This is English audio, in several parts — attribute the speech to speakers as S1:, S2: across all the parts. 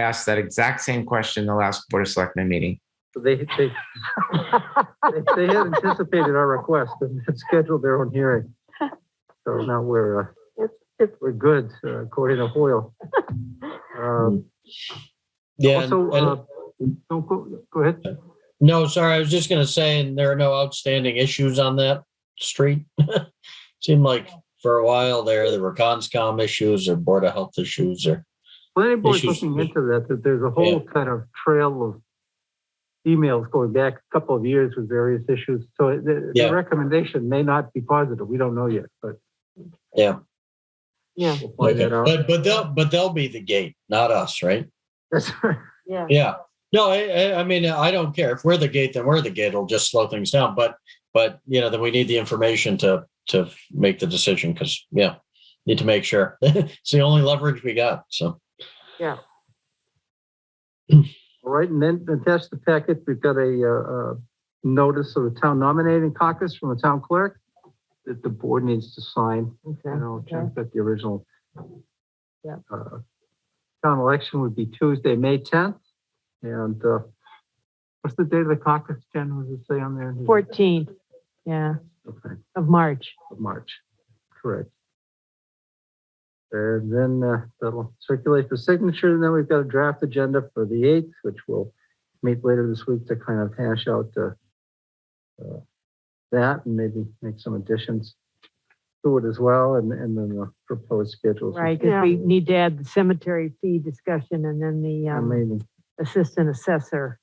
S1: asked that exact same question in the last Board of Selectmen meeting.
S2: They, they, they they had anticipated our request and had scheduled their own hearing. So now we're, uh, we're good uh, according to Hoyle. Um,
S3: Yeah. and-
S2: Also,
S3: and-
S2: uh, don't go, go ahead.
S3: no, sorry, I was just gonna say, and there are no outstanding issues on that street. Seemed like for a while there, there were conscom issues or board of health issues or,
S2: Planning board's
S3: Issues.
S2: looking into that, that there's a whole kind of trail of emails going back a couple of years with various issues. So the, the
S3: Yeah.
S2: recommendation may not be positive. We don't know yet, but.
S3: Yeah.
S4: Yeah.
S2: We'll find that out.
S3: but, but they'll, but they'll be the gate, not us, right?
S2: That's right.
S4: Yeah.
S3: Yeah. No, I, I, I mean, I don't care if we're the gate, then we're the gate. It'll just slow things down. But, but you know, then we need the information to, to make the decision because, yeah, need to make sure. It's the only leverage we got. So,
S2: All right, and then attached to the packet, we've got a, uh, uh, notice of the town nominating caucus from the town clerk that the board needs to sign, you
S4: Okay.
S2: know, Jim got the original.
S4: Yeah.
S2: Uh, Town election would be Tuesday, May tenth, and, uh, what's the date of the caucus, Jen, was it say on there?
S4: 14, yeah,
S2: Okay,
S4: of March.
S2: of March, correct. And then, uh, that'll circulate for signature, and then we've got a draft agenda for the eighth, which will meet later this week to kind of hash out uh, uh, that and maybe make some additions to it as well and, and then the proposed schedules.
S4: Right, because we need to add the cemetery fee discussion and then the
S2: I
S4: um,
S2: mean,
S4: assistant assessor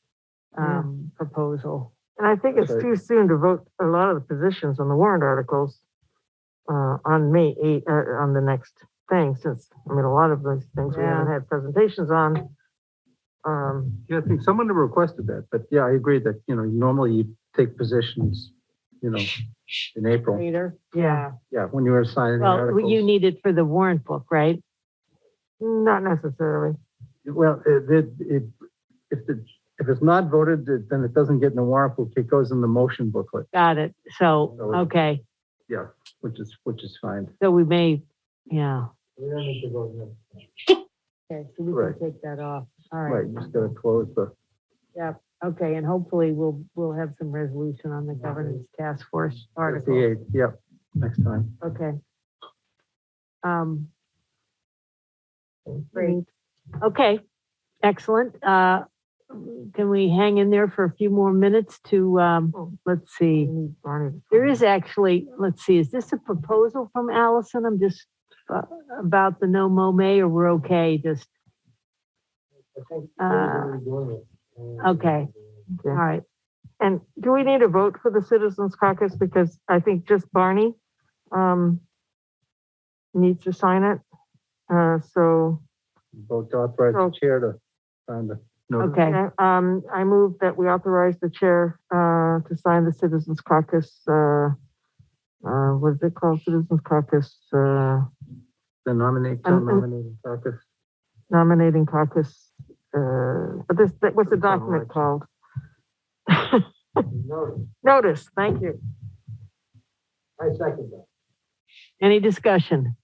S4: um, proposal.
S5: And I think it's
S2: Right.
S5: too soon to vote a lot of the positions on the warrant articles uh, on May 8, uh, on the next thing, since, I mean, a lot of those things we haven't had presentations on. Um,
S2: yeah, I think someone requested that, but yeah, I agree that, you know, normally you take positions, you know, in April.
S4: Later.
S5: Yeah.
S2: Yeah, when you're assigning the
S4: Well, you
S2: articles.
S4: need it for the warrant book, right?
S5: Not necessarily.
S2: Well, it, it, it- if the, if it's not voted, then it doesn't get in the warrant book. It goes in the motion booklet,
S4: Got it. So,
S2: No, it-
S4: okay,
S2: which is, which is fine.
S4: so we may, yeah.
S2: We don't need to vote now.
S4: Okay, so we
S2: Right.
S4: can take that off. All
S2: Right,
S4: right.
S2: you just gotta close the.
S4: Okay, and hopefully we'll, we'll have some resolution on the governance task force article.
S2: Fifty-eight, yep, next time.
S4: Okay. Um. Great. Okay, excellent. Uh, can we hang in there for a few more minutes to, um, let's see.
S5: Barney.
S4: There is actually, let's see, is this a proposal from Allison? I'm just, uh, about the no mo may or we're okay, just, uh, okay. all right.
S5: And do we need a vote for the Citizens Caucus? Because I think just Barney um, needs to sign it. Uh, So
S2: Vote to authorize the chair to sign the notice.
S4: Oh. Okay.
S5: Okay, um, I move that we authorize the chair, uh, to sign the Citizens Caucus, uh, uh, what is it called? Citizens Caucus, uh,
S2: The nominate,
S5: Um, um,
S2: nominating caucus.
S5: nominating caucus, uh, but this, that- what's the document called? Notice, thank you.
S2: I second that.
S4: Any discussion?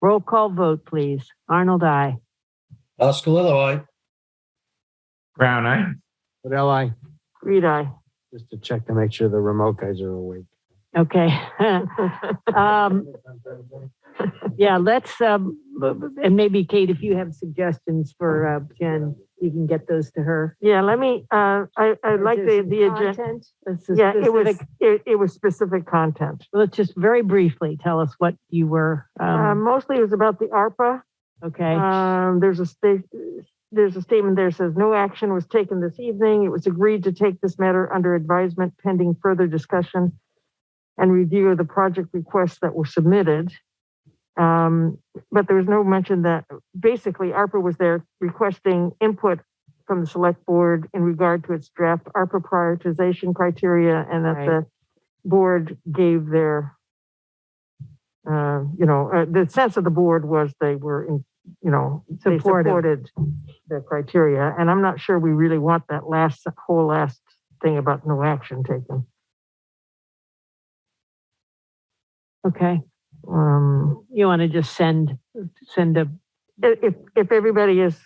S4: Roll call vote, please. Arnold, I.
S3: Oskalilowai.
S1: Brown eye?
S6: But I
S5: Reed, aye.
S6: just to check to make sure the remote guys are awake.
S4: Okay. Um, yeah, let's, um, b- b- and maybe Kate, if you have suggestions for, uh, Jen, you can get those to her.
S5: Yeah, let me, uh, I, I like the, the agenda.
S4: Let's just-
S5: Yeah, it was, it, it was specific content.
S4: Let's just very briefly tell us what you were,
S5: Uh,
S4: um,
S5: mostly it was about the ARPA.
S4: okay,
S5: Um, there's a state, there's a statement there says no action was taken this evening. It was agreed to take this matter under advisement pending further discussion and review of the project requests that were submitted. Um, but there was no mention that basically ARPA was there requesting input from the select board in regard to its draft ARPA prioritization criteria and that
S4: Right.
S5: the board gave their uh, you know, uh, the sense of the board was they were in, you know, they
S4: Supportive.
S5: supported the criteria. And I'm not sure we really want that last, whole last thing about no action taken.
S4: okay.
S5: Um,
S4: You want to just send, send a,
S5: i- if, if everybody is